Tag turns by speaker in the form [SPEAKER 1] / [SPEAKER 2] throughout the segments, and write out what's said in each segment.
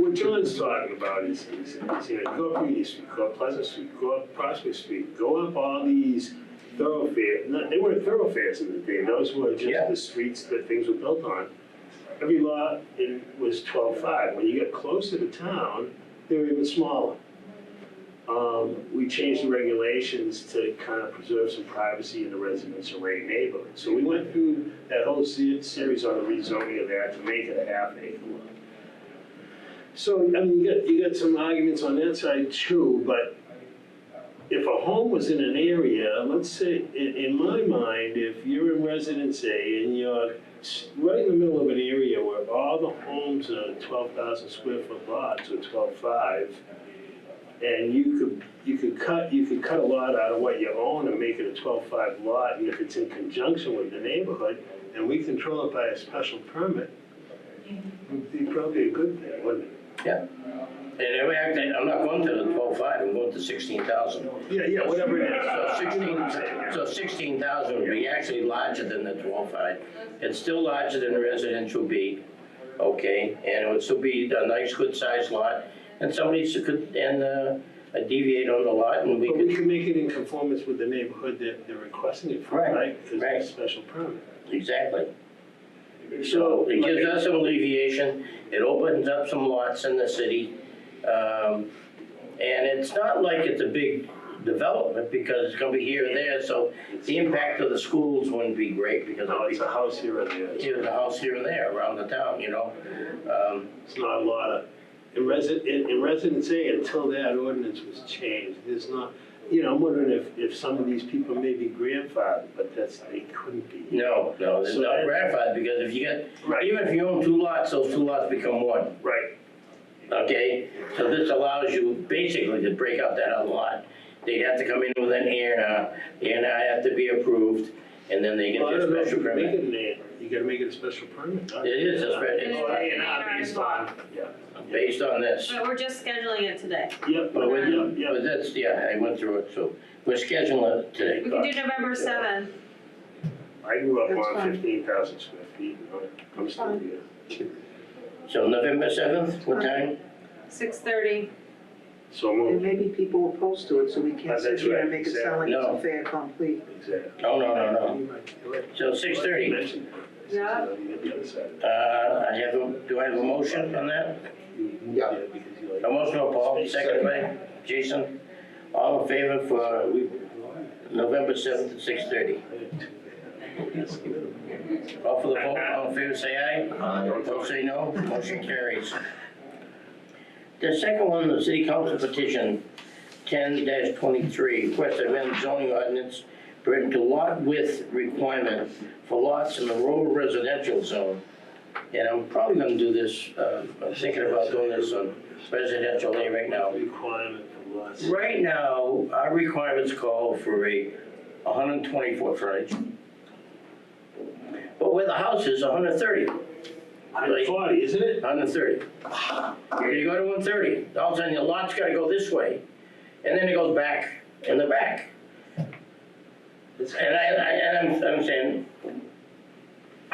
[SPEAKER 1] what John's talking about is, is, is, you know, go up Union Street, go up Pleasant Street, go up Prospect Street, go up all these thoroughfares. No, they weren't thoroughfares in the day, those were just
[SPEAKER 2] Yeah.
[SPEAKER 1] the streets that things were built on. Every lot, it was twelve-five, when you get closer to town, they were even smaller. Um, we changed the regulations to kind of preserve some privacy in the residence array neighborhood. So we went through that whole se- series on the rezoning of that to make it a half acre lot. So, I mean, you got, you got some arguments on that side too, but if a home was in an area, let's say, in, in my mind, if you're in residence A and you're s- right in the middle of an area where all the homes are twelve thousand square foot lots or twelve-five, and you could, you could cut, you could cut a lot out of what you own and make it a twelve-five lot, and if it's in conjunction with the neighborhood, and we control it by a special permit, would be probably a good thing, wouldn't it?
[SPEAKER 2] Yeah. And in fact, I'm not going to the twelve five, I'm going to sixteen thousand.
[SPEAKER 1] Yeah, yeah, whatever it is.
[SPEAKER 2] So sixteen, so sixteen thousand would be actually larger than the twelve five. It's still larger than residential B, okay, and it would still be a nice, good sized lot. And somebody s- could, and, uh, deviate on the lot and we
[SPEAKER 1] But we
[SPEAKER 2] could,
[SPEAKER 1] can make it in conformance with the neighborhood that they're requesting it from,
[SPEAKER 2] Right,
[SPEAKER 1] right? 'Cause it's a
[SPEAKER 2] right.
[SPEAKER 1] special permit.
[SPEAKER 2] exactly.
[SPEAKER 1] So,
[SPEAKER 2] So it gives
[SPEAKER 1] like-
[SPEAKER 2] us some alleviation, it opens up some lots in the city. Um, And it's not like it's a big development because it's gonna be here and there, so the impact of the schools wouldn't be great because
[SPEAKER 1] No,
[SPEAKER 2] it'll
[SPEAKER 1] it's
[SPEAKER 2] be
[SPEAKER 1] a house here or there.
[SPEAKER 2] here, the house here and there around the town, you know? Um,
[SPEAKER 1] It's not a lot of, in resi, in, in residence A, until that ordinance was changed, there's not, you know, I'm wondering if, if some of these people may be grandfathered, but that's, they couldn't be.
[SPEAKER 2] No, no, it's
[SPEAKER 1] So
[SPEAKER 2] not
[SPEAKER 1] that-
[SPEAKER 2] gratified because if you get,
[SPEAKER 1] Right.
[SPEAKER 2] even if you own two lots, those two lots become one,
[SPEAKER 1] Right,
[SPEAKER 2] okay? So this allows you basically to break up that other lot. They'd have to come in with an A and R, the A and R have to be approved, and then they get
[SPEAKER 1] Well, I
[SPEAKER 2] their
[SPEAKER 1] don't know if
[SPEAKER 2] special
[SPEAKER 1] you can make
[SPEAKER 2] permit.
[SPEAKER 1] it an A, you gotta make it a special permit. huh?
[SPEAKER 2] It is a spe- it's-
[SPEAKER 1] Oh, A and R based on, yeah.
[SPEAKER 2] Based on this,
[SPEAKER 3] But we're just scheduling it today.
[SPEAKER 1] Yep,
[SPEAKER 2] But
[SPEAKER 3] when-
[SPEAKER 1] yep, yep.
[SPEAKER 2] but that's, yeah, I went through it, so we're scheduling it today.
[SPEAKER 3] We can do November seventh.
[SPEAKER 1] I grew up
[SPEAKER 4] That's
[SPEAKER 1] on
[SPEAKER 4] fine.
[SPEAKER 1] fifteen thousand square feet, you know, I'm still
[SPEAKER 4] Fine.
[SPEAKER 1] here.
[SPEAKER 2] So November seventh, what time?
[SPEAKER 3] Six thirty.
[SPEAKER 1] So
[SPEAKER 4] And
[SPEAKER 1] moved,
[SPEAKER 4] maybe people opposed to it, so we
[SPEAKER 1] Uh,
[SPEAKER 4] can't sit
[SPEAKER 1] that's
[SPEAKER 4] here
[SPEAKER 1] right,
[SPEAKER 4] and make it sound like it's
[SPEAKER 2] exactly.
[SPEAKER 4] a fair complete.
[SPEAKER 1] exactly.
[SPEAKER 2] Oh, no, no, no.
[SPEAKER 1] You might- you're right.
[SPEAKER 2] So six
[SPEAKER 1] You
[SPEAKER 2] thirty,
[SPEAKER 1] mentioned that.
[SPEAKER 3] Yeah.
[SPEAKER 1] So you get the other side of
[SPEAKER 2] uh, I have, a- do I have a motion on that?
[SPEAKER 1] it. You moved
[SPEAKER 5] Yeah.
[SPEAKER 1] it because you like-
[SPEAKER 2] A motion by Paul, second by Jason. All in favor for November seventh at six thirty? Call for the vote, all in favor, say aye. Opposed, say no. Motion carries. The second one, the city council petition ten twenty-three, request to amend zoning ordinance pertaining to lot width requirement for lots in the rural residential zone. And I'm probably gonna do this, uh, I'm thinking about doing this on residential A right now.
[SPEAKER 1] Requirement for lots.
[SPEAKER 2] Right now, our requirements call for a 120 foot frontage. But where the house is, 130,
[SPEAKER 1] Hundred forty, isn't it?
[SPEAKER 2] 130. You're gonna go to 130, all of a sudden your lot's gotta go this way, and then it goes back in the back. And I, I, and I'm, I'm saying,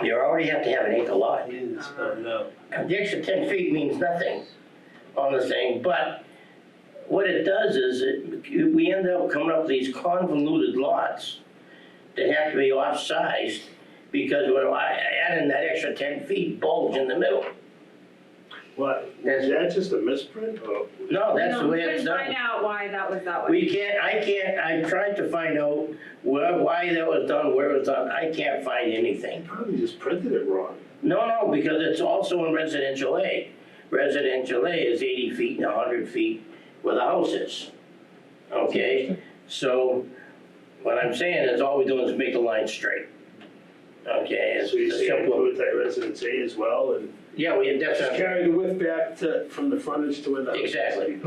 [SPEAKER 2] you already have to have an acre lot.
[SPEAKER 1] It is,
[SPEAKER 2] uh,
[SPEAKER 1] oh, no.
[SPEAKER 2] The extra ten feet means nothing on the thing, but what it does is it, we end up coming up with these convoluted lots that have to be off-sized because we're I- adding that extra ten feet bulge in the middle.
[SPEAKER 1] What,
[SPEAKER 2] That's-
[SPEAKER 1] is that just a misprint or?
[SPEAKER 2] No, that's the way
[SPEAKER 3] We
[SPEAKER 2] it's
[SPEAKER 3] can find
[SPEAKER 2] done.
[SPEAKER 3] out why that was that way.
[SPEAKER 2] We can't, I can't, I tried to find out where, why that was done, where it was done, I can't find anything.
[SPEAKER 1] They probably just printed it wrong.
[SPEAKER 2] No, no, because it's also in residential A. Residential A is eighty feet and hundred feet where the house is. Okay, so what I'm saying is all we're doing is make the line straight. Okay, it's
[SPEAKER 1] So you
[SPEAKER 2] a
[SPEAKER 1] say
[SPEAKER 2] simple,
[SPEAKER 1] include that residence A as well and
[SPEAKER 2] yeah, we, that's,
[SPEAKER 1] just
[SPEAKER 2] a-
[SPEAKER 1] carry the width back to, from the frontage to where the house is.
[SPEAKER 2] Exactly.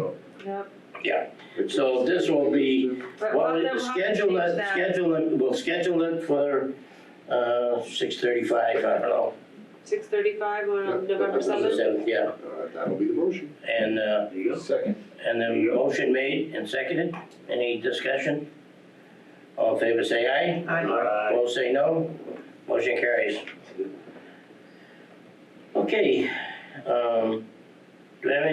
[SPEAKER 3] Yep.
[SPEAKER 2] yeah. So this will be,
[SPEAKER 3] But
[SPEAKER 2] well,
[SPEAKER 3] we'll have to- we'll have to
[SPEAKER 2] schedule
[SPEAKER 3] change
[SPEAKER 2] it,
[SPEAKER 3] that.
[SPEAKER 2] schedule it, we'll schedule it for, uh, six thirty-five, I don't know.
[SPEAKER 3] Six thirty-five on
[SPEAKER 5] Yeah.
[SPEAKER 3] November seventh.
[SPEAKER 2] Seventh, Yeah,
[SPEAKER 5] Uh, That'll be the motion.
[SPEAKER 2] and, uh,
[SPEAKER 1] There you go.
[SPEAKER 5] Second.
[SPEAKER 2] And the motion made and seconded, any discussion? All in favor say aye,
[SPEAKER 1] Aye.
[SPEAKER 2] opposed say no, motion carries. Okay, um, do we have any